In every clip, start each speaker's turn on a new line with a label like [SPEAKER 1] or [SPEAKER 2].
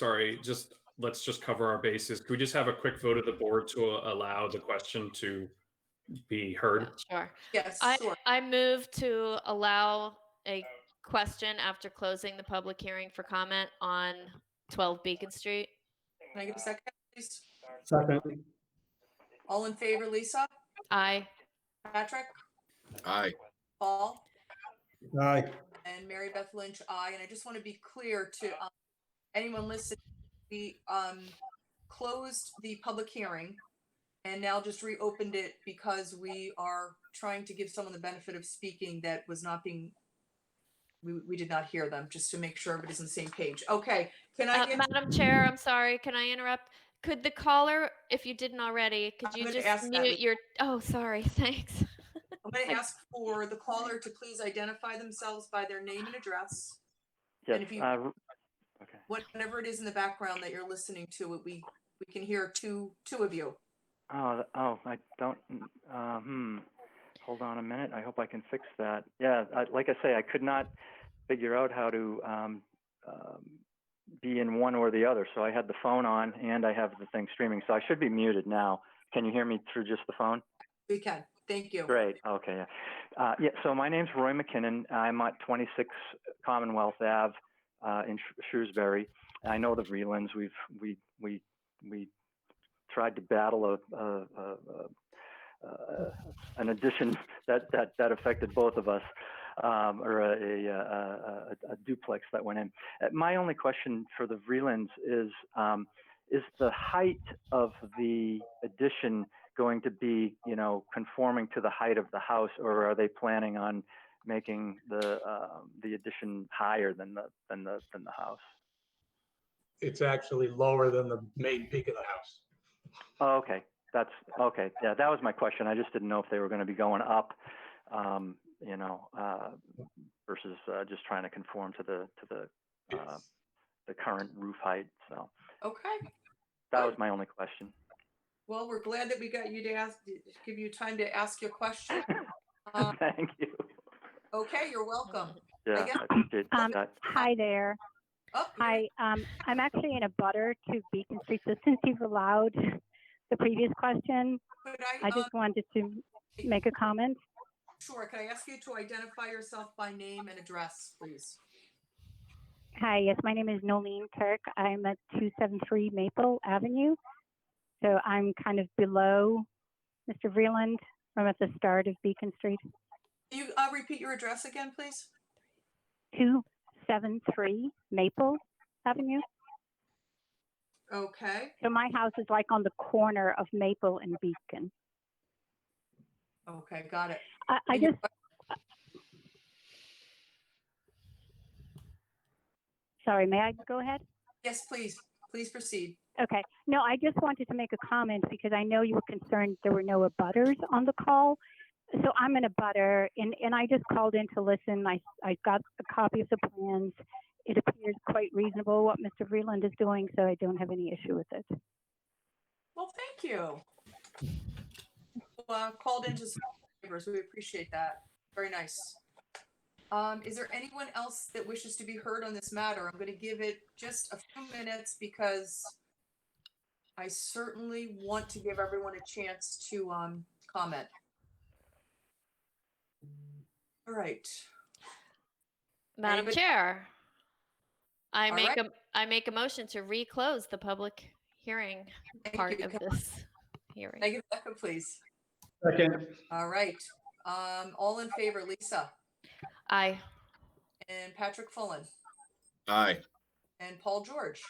[SPEAKER 1] sorry, just, let's just cover our bases. Could we just have a quick vote of the board to allow the question to be heard?
[SPEAKER 2] Sure.
[SPEAKER 3] Yes,
[SPEAKER 2] I,
[SPEAKER 3] sure.
[SPEAKER 2] I move to allow a question after closing the public hearing for comment on 12 Beacon Street.
[SPEAKER 3] Can I get a second, please?
[SPEAKER 4] Second,
[SPEAKER 3] All in favor, Lisa,
[SPEAKER 2] Aye.
[SPEAKER 3] Patrick,
[SPEAKER 5] Aye.
[SPEAKER 3] Paul,
[SPEAKER 4] aye.
[SPEAKER 3] and Mary Beth Lynch, I. And I just want to be clear to um, anyone listening, we um, closed the public hearing and now just reopened it because we are trying to give someone the benefit of speaking that was not being, we, we did not hear them, just to make sure everybody's on the same page. Okay, can I
[SPEAKER 2] Uh,
[SPEAKER 3] get,
[SPEAKER 2] Madam Chair, I'm sorry, can I interrupt? Could the caller, if you didn't already, could
[SPEAKER 3] I'm
[SPEAKER 2] you
[SPEAKER 3] gonna
[SPEAKER 2] just
[SPEAKER 3] ask that.
[SPEAKER 2] mute your, oh, sorry, thanks.
[SPEAKER 3] I'm going to ask for the caller to please identify themselves by their name and address. And
[SPEAKER 6] Yes,
[SPEAKER 3] if you-
[SPEAKER 6] uh, r- okay.
[SPEAKER 3] whatever it is in the background that you're listening to, we, we can hear two, two of you.
[SPEAKER 6] Oh, th- oh, I don't. n- Uh, hmm. Hold on a minute. I hope I can fix that. Yeah, I, like I say, I could not figure out how to um, um, be in one or the other. So I had the phone on and I have the thing streaming. So I should be muted now. Can you hear me through just the phone?
[SPEAKER 3] We can, thank you.
[SPEAKER 6] Great. Okay. Yeah. Uh, yeah. So my name's Roy McKinnon. I'm at 26 Commonwealth Ave uh, in Sh- Shrewsbury. I know the Vreelands. We've we we we tried to battle a, a, a, a, a an addition that that that affected both of us, um, or a, a, a, a, a duplex that went in. Uh, My only question for the Vreelands is. Um, is the height of the addition going to be, you know, conforming to the height of the house, or are they planning on making the um, the addition higher than the than the than the house?
[SPEAKER 4] It's actually lower than the main peak of the house.
[SPEAKER 6] Oh, okay, that's okay. Yeah, that was my question. I just didn't know if they were going to be going up, um, you know, uh, versus uh, just trying to conform to the to the uh,
[SPEAKER 4] It's-
[SPEAKER 6] the current roof height. So
[SPEAKER 3] Okay,
[SPEAKER 6] that was my only question.
[SPEAKER 3] well, we're glad that we got you to ask, give you time to ask your question. Uh,
[SPEAKER 6] Thank you.
[SPEAKER 3] Okay, you're welcome.
[SPEAKER 6] Yeah,
[SPEAKER 3] guess-
[SPEAKER 6] I appreciate
[SPEAKER 7] Um,
[SPEAKER 6] that.
[SPEAKER 7] Hi there.
[SPEAKER 3] Oh, you're-
[SPEAKER 7] Hi, um, I'm actually in a butter to Beacon Street. So since you've allowed the previous question,
[SPEAKER 3] Could
[SPEAKER 7] I
[SPEAKER 3] I, um,
[SPEAKER 7] just wanted to make a comment.
[SPEAKER 3] sure, can I ask you to identify yourself by name and address, please?
[SPEAKER 7] Hi, yes, my name is Nolene Kirk. I'm at 273 Maple Avenue. So I'm kind of below Mr. Vreeland. I'm at the start of Beacon Street.
[SPEAKER 3] Can you, uh, repeat your address again, please?
[SPEAKER 7] 273 Maple Avenue.
[SPEAKER 3] Okay,
[SPEAKER 7] So my house is like on the corner of Maple and Beacon.
[SPEAKER 3] okay, got it.
[SPEAKER 7] I, I
[SPEAKER 3] And your
[SPEAKER 7] just, sorry, may I go ahead?
[SPEAKER 3] Yes, please, please proceed.
[SPEAKER 7] Okay. No, I just wanted to make a comment because I know you were concerned there were no abutters on the call. So I'm an abutter and, and I just called in to listen. I, I got a copy of the plans. It appears quite reasonable what Mr. Vreeland is doing, so I don't have any issue with it.
[SPEAKER 3] Well, thank you. Well, called into some neighbors. We appreciate that. Very nice. Um, is there anyone else that wishes to be heard on this matter? I'm going to give it just a few minutes because I certainly want to give everyone a chance to, um, comment. All right.
[SPEAKER 2] Madam
[SPEAKER 3] Anybody-
[SPEAKER 2] Chair, I
[SPEAKER 3] All
[SPEAKER 2] make
[SPEAKER 3] right.
[SPEAKER 2] a, I make a motion to reclose the public hearing
[SPEAKER 3] Thank
[SPEAKER 2] part
[SPEAKER 3] you.
[SPEAKER 2] of
[SPEAKER 3] Can
[SPEAKER 2] this
[SPEAKER 3] I
[SPEAKER 2] hearing.
[SPEAKER 3] get a second, please?
[SPEAKER 4] Second,
[SPEAKER 3] All right. Um, all in favor, Lisa
[SPEAKER 2] Aye.
[SPEAKER 3] and Patrick Fullen
[SPEAKER 5] Aye.
[SPEAKER 3] and Paul George.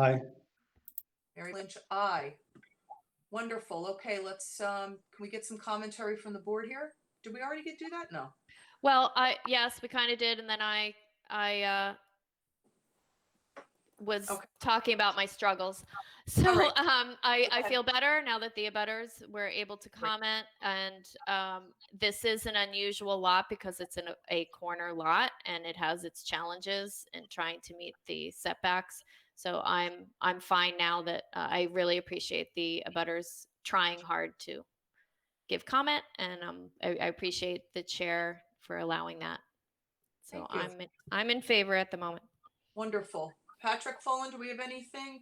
[SPEAKER 4] aye.
[SPEAKER 3] Mary Lynch, aye. Wonderful. Okay, let's, um, can we get some commentary from the board here? Did we already get do that? No.
[SPEAKER 2] Well, I, yes, we kind of did, and then I, I, uh, was
[SPEAKER 3] Okay.
[SPEAKER 2] talking about my struggles. So,
[SPEAKER 3] right.
[SPEAKER 2] um, I, I
[SPEAKER 3] Okay.
[SPEAKER 2] feel better now that the abutters were able to comment and, um, this is an unusual lot because it's in a, a corner lot and it has its challenges in trying to meet the setbacks. So I'm, I'm fine now that, uh, I really appreciate the abutters trying hard to give comment and um, I, I appreciate the chair for allowing that. So
[SPEAKER 3] Thank you.
[SPEAKER 2] I'm, in- I'm in favor at the moment.
[SPEAKER 3] Wonderful. Patrick Follin, do we have anything?